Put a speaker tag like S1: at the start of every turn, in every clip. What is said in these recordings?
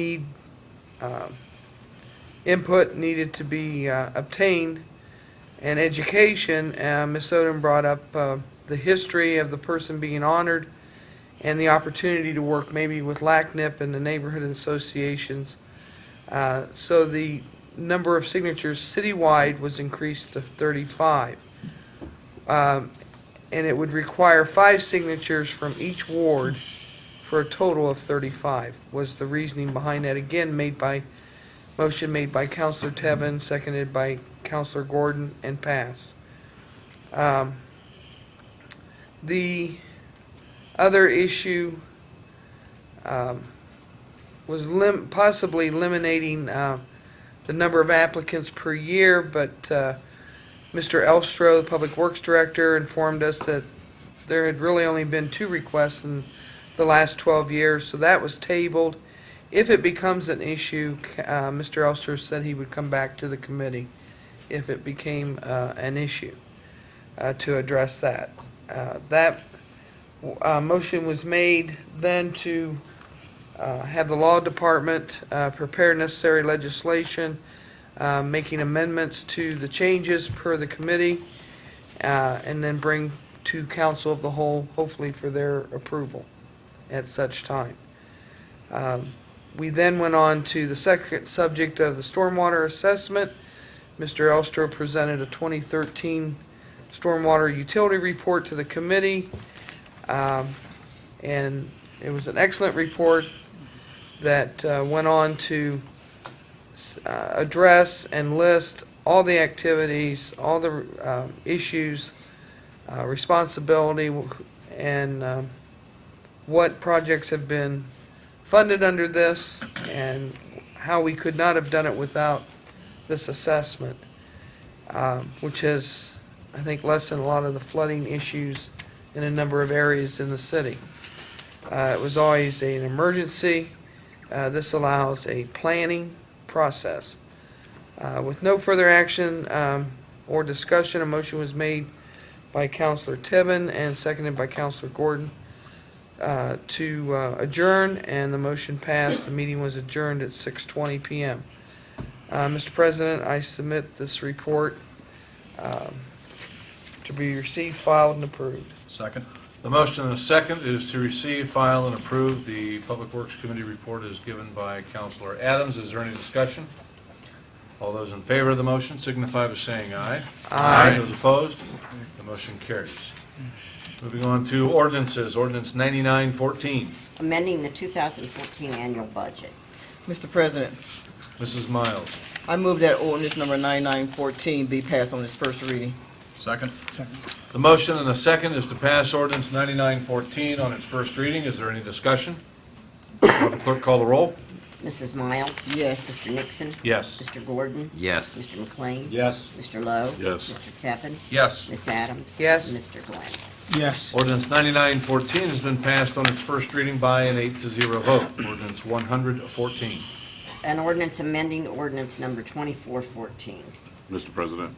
S1: need, um, input needed to be uh, obtained and education. Uh, Ms. Odom brought up uh, the history of the person being honored and the opportunity to work maybe with LACNIP and the neighborhood associations. Uh, So the number of signatures citywide was increased to 35. Um, And it would require five signatures from each ward for a total of 35, was the reasoning behind that, again, made by, motion made by Counselor Tevin, seconded by Counselor Gordon, and passed. Um, The other issue um, was lim, possibly eliminating uh, the number of applicants per year, but uh, Mr. Elstro, the Public Works Director, informed us that there had really only been two requests, and the last 12 years, so that was tabled. If it becomes an issue, c- uh, Mr. Elster said he would come back to the committee if it became uh, an issue uh, to address that. Uh, That uh, motion was made then to uh, have the law department uh, prepare necessary legislation, uh, making amendments to the changes per the committee, uh, and then bring to council of the whole, hopefully for their approval at such time. Um, We then went on to the second subject of the stormwater assessment. Mr. Elstro presented a 2013 stormwater utility report to the committee, Um, and it was an excellent report that uh, went on to s- uh, address and list all the activities, all the um, issues, uh, responsibility, and um, what projects have been funded under this and how we could not have done it without this assessment, um, which has, I think, lessened a lot of the flooding issues in a number of areas in the city. Uh, It was always an emergency. Uh, This allows a planning process. Uh, With no further action um, or discussion, a motion was made by Counselor Tibbin and seconded by Counselor Gordon uh, to uh, adjourn, and the motion passed. The meeting was adjourned at 6:20 PM. Uh, Mr. President, I submit this report um, to be received, filed, and approved.
S2: Second. The motion and a second is to receive, file, and approve. The Public Works Committee report is given by Counselor Adams. Is there any discussion? All those in favor of the motion signify by saying aye.
S1: Aye.
S2: Those opposed, the motion carries. Moving on to ordinances, ordinance 9914.
S3: amending the 2014 annual budget.
S4: Mr. President,
S2: Mrs. Miles.
S4: I move that ordinance number 9914 be passed on its first reading.
S2: Second. The motion and the second is to pass ordinance 9914 on its first reading. Is there any discussion? Will the Clerk, call the roll.
S3: Mrs. Miles?
S4: Yes.
S3: Mr. Nixon?
S2: Yes.
S3: Mr. Gordon?
S5: Yes.
S3: Mr. McLean?
S2: Yes.
S3: Mr. Lowe?
S2: Yes.
S3: Mr. Tevin?
S2: Yes.
S3: Miss Adams?
S1: Yes.
S3: Mr. Glenn?
S6: Yes.
S2: Ordinance 9914 has been passed on its first reading by an eight to zero vote. Ordinance 114.
S3: An ordinance amending ordinance number 2414.
S7: Mr. President,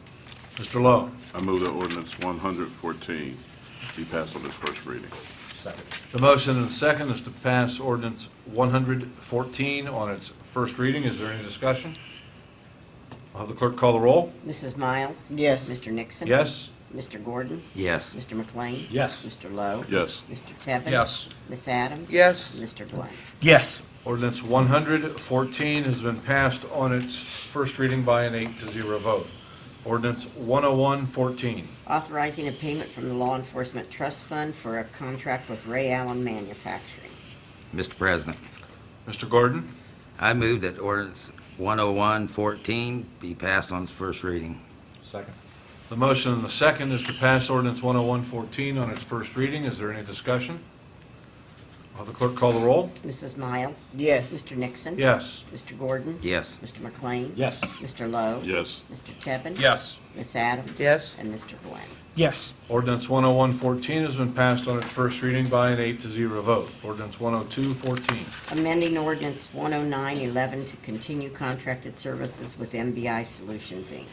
S2: Mr. Lowe.
S7: I move that ordinance 114 be passed on its first reading.
S2: The motion and second is to pass ordinance 114 on its first reading. Is there any discussion? I'll have the clerk call the roll.
S3: Mrs. Miles?
S4: Yes.
S3: Mr. Nixon?
S2: Yes?
S3: Mr. Gordon?
S5: Yes.
S3: Mr. McLean?
S2: Yes.
S3: Mr. Lowe?
S7: Yes.
S3: Mr. Tevin? Miss Adams?
S1: Yes.
S3: Mr. Glenn?
S6: Yes.
S2: Ordinance 114 has been passed on its first reading by an eight to zero vote. Ordinance 10114.
S3: Authorizing a payment from the Law Enforcement Trust Fund for a contract with Ray Allen Manufacturing.
S5: Mr. President,
S2: Mr. Gordon?
S5: I move that ordinance 10114 be passed on its first reading.
S2: Second. The motion and the second is to pass ordinance 10114 on its first reading. Is there any discussion? Will the clerk call the roll?
S3: Mrs. Miles?
S4: Yes.
S3: Mr. Nixon?
S2: Yes.
S3: Mr. Gordon?
S5: Yes.
S3: Mr. McLean?
S2: Yes.
S3: Mr. Lowe?
S7: Yes.
S3: Mr. Tevin?
S2: Yes.
S3: Ms. Adams?
S1: Yes.
S3: And Mr. Glenn?
S6: Yes.
S2: Ordinance 10114 has been passed on its first reading by an eight to zero vote. Ordinance 10214.
S3: Amending ordinance 10911 to continue contracted services with MBI Solutions, Inc.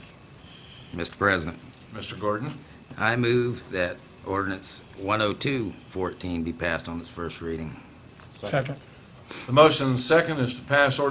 S5: Mr. President,
S2: Mr. Gordon?
S5: I move that oh ordinance 10214 be passed on its first reading.
S6: Second.
S2: The motion and the second is to pass ordinance